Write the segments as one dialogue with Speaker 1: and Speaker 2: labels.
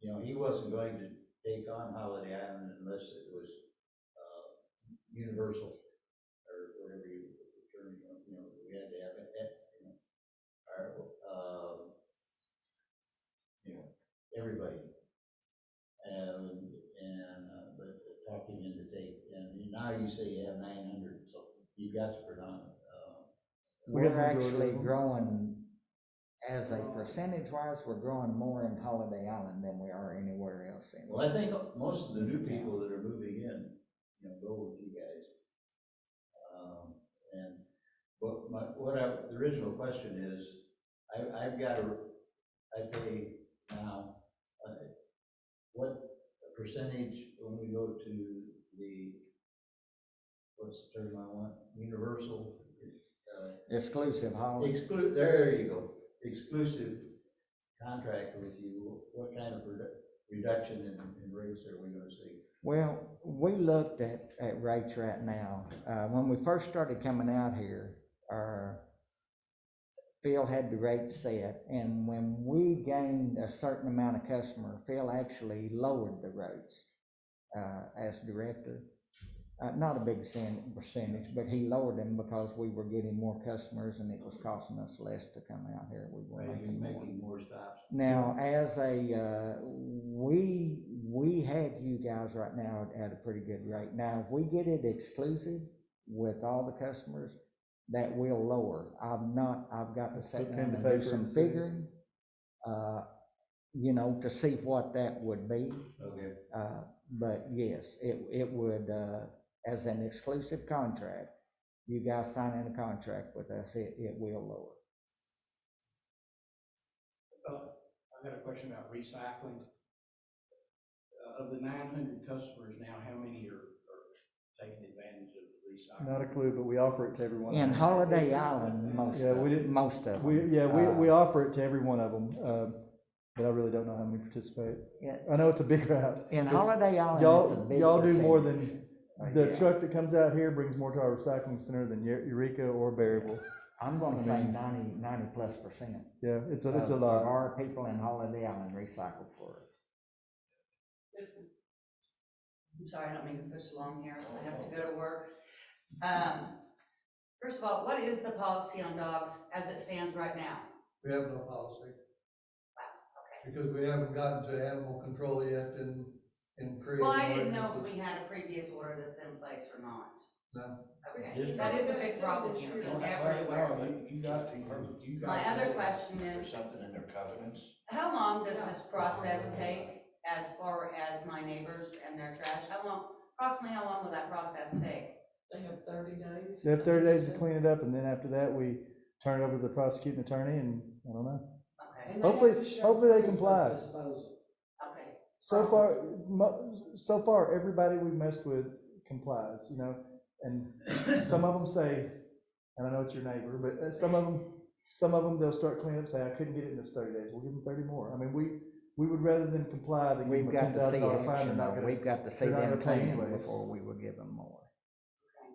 Speaker 1: you know, he wasn't going to take on Holiday Island unless it was, uh, universal, or whatever you, the term, you know, we had to have it, eh, you know, our, um, you know, everybody. And, and, uh, but talking in the date, and now you say you have nine hundred, so you got to predominant, uh,
Speaker 2: We
Speaker 3: We're
Speaker 2: have majority
Speaker 3: actually
Speaker 2: of 'em.
Speaker 3: growing, as a percentage wise, we're growing more in Holiday Island than we are anywhere else. in-
Speaker 1: Well, I think most of the new people that are moving in, you know, go with you guys. Um, And, but my, what I, the original question is, I, I've got a, I pay now, uh, what percentage when we go to the, what's the term I want, universal, uh,
Speaker 3: Exclusive Holiday,
Speaker 1: Exclu, there you go, exclusive contract with you, what kind of redu- reduction in, in rates are we gonna see?
Speaker 3: well, we looked at, at rates right now. Uh, when we first started coming out here, our Phil had the rates set, and when we gained a certain amount of customer, Phil actually lowered the rates, uh, as director. Uh, not a big percent- percentage, but he lowered them because we were getting more customers and it was costing us less to come out here. We were
Speaker 1: Right,
Speaker 3: making more.
Speaker 1: making more stops.
Speaker 3: Now, as a, uh, we, we had you guys right now at a pretty good rate. Now, if we get it exclusive with all the customers, that will lower. I've not, I've got to
Speaker 2: Put
Speaker 3: sit
Speaker 2: pen
Speaker 3: down
Speaker 2: to
Speaker 3: and
Speaker 2: paper
Speaker 3: do some
Speaker 2: and see.
Speaker 3: figuring, uh, you know, to see what that would be.
Speaker 1: Okay,
Speaker 3: Uh, but yes, it, it would, uh, as an exclusive contract, you guys signing a contract with us, it, it will lower.
Speaker 4: Uh, I've got a question about recycling. Uh, Of the nine hundred customers now, how many are, are taking advantage of the recycling?
Speaker 2: Not a clue, but we offer it to every one. of
Speaker 3: In
Speaker 2: 'em.
Speaker 3: Holiday Island, most
Speaker 2: Yeah,
Speaker 3: of,
Speaker 2: we didn't-
Speaker 3: most of
Speaker 2: We,
Speaker 3: them.
Speaker 2: yeah, we, we
Speaker 3: Uh,
Speaker 2: offer it to every one of them, uh, but I really don't know how many participate.
Speaker 3: Yeah.
Speaker 2: I know it's a big route.
Speaker 3: In
Speaker 2: It's-
Speaker 3: Holiday Island, it's a
Speaker 2: Y'all,
Speaker 3: big
Speaker 2: y'all do more
Speaker 3: percentage.
Speaker 2: than,
Speaker 3: Uh,
Speaker 2: the
Speaker 3: yeah.
Speaker 2: truck that comes out here brings more to our recycling center than Eu- Eureka or Berryville.
Speaker 3: I'm gonna
Speaker 2: I
Speaker 3: say
Speaker 2: mean-
Speaker 3: ninety, ninety plus percent.
Speaker 2: Yeah, it's a, it's a
Speaker 3: of- of
Speaker 2: lot.
Speaker 3: Uh, Our people in Holiday Island recycle for us.
Speaker 5: I'm sorry, I don't mean to push along here, I have to go to work. Um, First of all, what is the policy on dogs as it stands right now?
Speaker 6: We have no policy. Because we haven't gotten to animal control yet in, in creating.
Speaker 5: Well, I didn't know if
Speaker 6: ordinances.
Speaker 5: we had a previous order that's in place or not.
Speaker 6: No.
Speaker 5: Okay,
Speaker 1: Yes,
Speaker 5: 'cause that is a big problem here, in everywhere.
Speaker 7: You got to, you got.
Speaker 5: My
Speaker 7: to-
Speaker 5: other question
Speaker 7: There's
Speaker 5: is,
Speaker 7: something in their covenants.
Speaker 5: how long does this process take as far as my neighbors and their trash? How long, approximately how long will that process take?
Speaker 8: They have thirty days.
Speaker 2: They have thirty days to clean it up and then after that, we turn it over to the prosecuting attorney and, I don't know.
Speaker 5: Okay,
Speaker 8: And they have
Speaker 2: Hopefully-
Speaker 8: to show
Speaker 2: hopefully they
Speaker 8: proof of
Speaker 2: comply.
Speaker 8: disposal.
Speaker 5: okay.
Speaker 2: So far, mo- so far, everybody we've messed with complies, you know, and some of them say, and I know it's your neighbor, but uh, some of them, some of them, they'll start cleaning up, say, I couldn't get it in those thirty days, we'll give them thirty more. I mean, we, we would rather than comply than give
Speaker 3: We've
Speaker 2: them a ten
Speaker 3: got to
Speaker 2: thousand
Speaker 3: see
Speaker 2: dollar fine, they're
Speaker 3: action,
Speaker 2: not
Speaker 3: though.
Speaker 2: gonna,
Speaker 3: we've got to see
Speaker 2: they're not
Speaker 3: them
Speaker 2: gonna pay
Speaker 3: clean
Speaker 2: anyways.
Speaker 3: before we will give them more.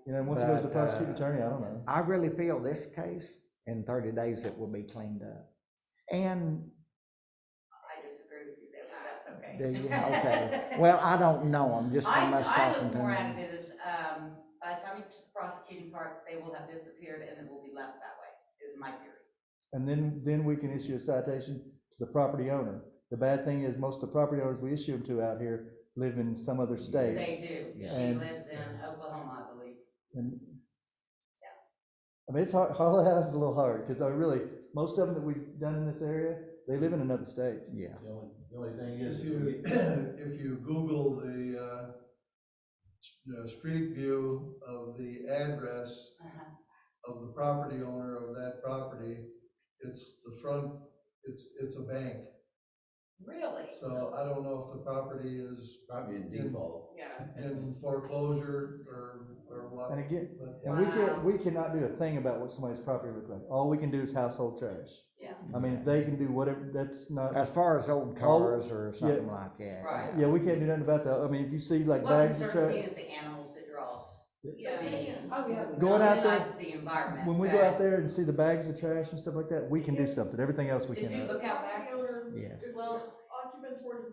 Speaker 2: you know, once it goes to
Speaker 3: but,
Speaker 2: prosecuting
Speaker 3: uh,
Speaker 2: attorney, I don't know.
Speaker 3: I really feel this case, in thirty days, it will be cleaned up. And
Speaker 5: I disagree with you there, but that's okay.
Speaker 3: Do you? Okay. Well, I don't know, I'm just from us
Speaker 5: I, I
Speaker 3: talking
Speaker 5: look
Speaker 3: to
Speaker 5: more
Speaker 3: them.
Speaker 5: at it as, um, by the time you get to the prosecuting part, they will have disappeared and it will be left that way, is my theory.
Speaker 2: And then, then we can issue a citation to the property owner. The bad thing is, most of the property owners we issue them to out here live in some other state.
Speaker 5: They do.
Speaker 3: Yeah.
Speaker 5: She
Speaker 2: And-
Speaker 5: lives in Oklahoma, I believe.
Speaker 2: And.
Speaker 5: Yeah.
Speaker 2: I mean, it's hard, Holiday Island's a little hard, because I really, most of them that we've done in this area, they live in another state.
Speaker 3: Yeah,
Speaker 1: the only, the only thing is,
Speaker 6: If you, if you Google the, uh, s- uh, street view of the address
Speaker 5: Uh-huh.
Speaker 6: of the property owner of that property, it's the front, it's, it's a bank.
Speaker 5: Really?
Speaker 6: So I don't know if the property is
Speaker 1: probably in default.
Speaker 5: Yeah.
Speaker 6: in foreclosure or, or what.
Speaker 2: And again,
Speaker 6: but-
Speaker 2: and we
Speaker 5: Wow.
Speaker 2: can, we cannot do a thing about what somebody's property looks like. All we can do is household trash.
Speaker 5: Yeah.
Speaker 2: I mean, they can do whatever, that's not,
Speaker 3: as far as old cars or something like that.
Speaker 5: Right.
Speaker 2: yeah, we can't do nothing about that. I mean, if you see like
Speaker 5: What
Speaker 2: bags of
Speaker 5: concerns me
Speaker 2: trash,
Speaker 5: is the animals it draws.
Speaker 8: Yeah,
Speaker 5: The-
Speaker 8: oh, yeah.
Speaker 2: Going out there-
Speaker 5: besides The environment.
Speaker 2: when we
Speaker 5: but
Speaker 2: go out there and see the bags of trash and stuff like that, we can do something. Everything else we
Speaker 5: Did you
Speaker 2: cannot.
Speaker 5: look out back?
Speaker 8: Property owner,
Speaker 3: Yes.
Speaker 8: if
Speaker 5: Well-
Speaker 8: occupants were to